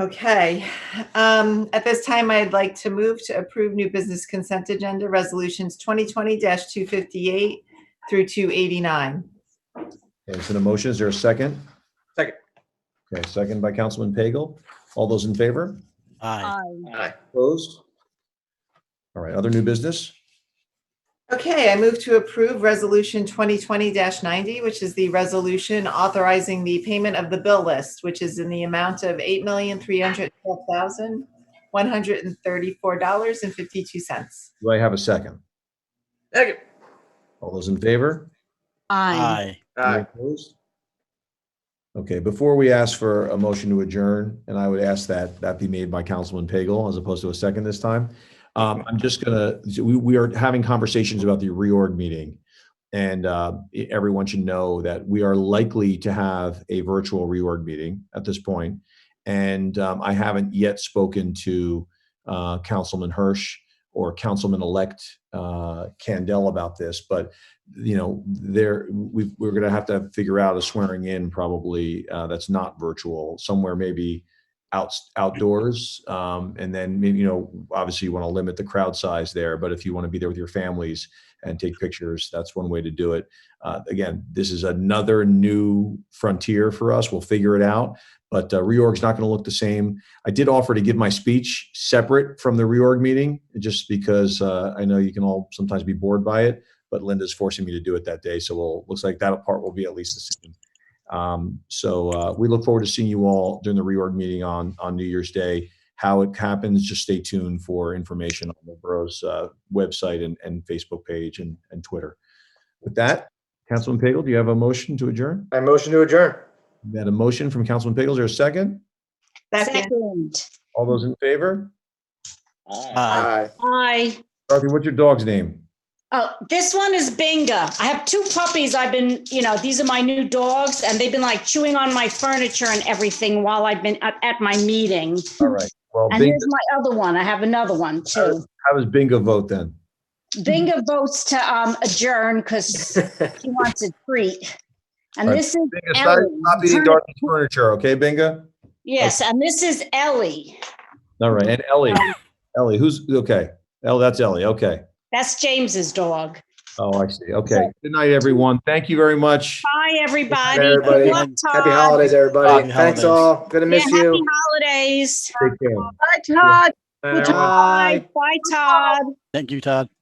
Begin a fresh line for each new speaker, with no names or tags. Okay, um, at this time, I'd like to move to approve new business consent agenda resolutions twenty twenty two fifty-eight through two eighty-nine.
Okay, it's an emotion. Is there a second?
Second.
Okay, second by Councilman Pagel. All those in favor?
Aye.
Aye.
Opposed? All right, other new business?
Okay, I move to approve Resolution 2020-90, which is the resolution authorizing the payment of the bill list, which is in the amount of $8,312,134.52.
Do I have a second?
Second.
All those in favor?
Aye.
Any
Aye.
Opposed? Okay, before we ask for a motion to adjourn, and I would ask that that be made by Councilman Pagel as opposed to a second this time. Um, I'm just gonna, we, we are having conversations about the reorg meeting. And, uh, e- everyone should know that we are likely to have a virtual reorg meeting at this point. And, um, I haven't yet spoken to, uh, Councilman Hirsch or Councilman-elect, uh, Candell about this, but you know, there, we, we're gonna have to figure out a swearing in probably, uh, that's not virtual, somewhere maybe out, outdoors. Um, and then maybe, you know, obviously you want to limit the crowd size there, but if you want to be there with your families and take pictures, that's one way to do it. Uh, again, this is another new frontier for us. We'll figure it out. But uh, reorg's not going to look the same. I did offer to give my speech separate from the reorg meeting, just because uh, I know you can all sometimes be bored by it but Linda's forcing me to do it that day. So we'll, looks like that part will be at least the same. Um, so, uh, we look forward to seeing you all during the reorg meeting on, on New Year's Day. How it happens, just stay tuned for information on the borough's, uh, website and, and Facebook page and, and Twitter. With that, Councilman Pagel, do you have a motion to adjourn?
I motion to adjourn.
We had a motion from Councilman Pagel. Is there a second?
Second,
Second.
All those in favor?
Aye.
Aye.
Dorothy, what's your dog's name?
Oh, this one is Binga. I have two puppies. I've been, you know, these are my new dogs and they've been like chewing on my furniture and everything while I've been at, at my meeting.
Oh,
All right. Well,
And
Bing-
here's my other one. I have another one
Oh.
too.
how does bingo vote then?
Binga votes to um, adjourn because she wants a treat. And
All right.
this is
Bingo, stop
Ellie.
stop eating Dorothy's furniture, okay, Bingo?
Yes, and this is Ellie.
All right, and Ellie, Ellie, who's, okay, Ellie, that's Ellie, okay.
That's James's dog.
Oh, I see, okay. Good night, everyone. Thank you very much.
Bye, everybody. Good
everybody.
luck,
Happy
Todd.
holidays, everybody.
Happy
Thanks
holidays.
all. Good to
Yeah,
miss
happy
you.
holidays.
Take care.
Bye, Todd.
Bye, everyone.
aye.
Bye, Todd.
Thank you, Todd.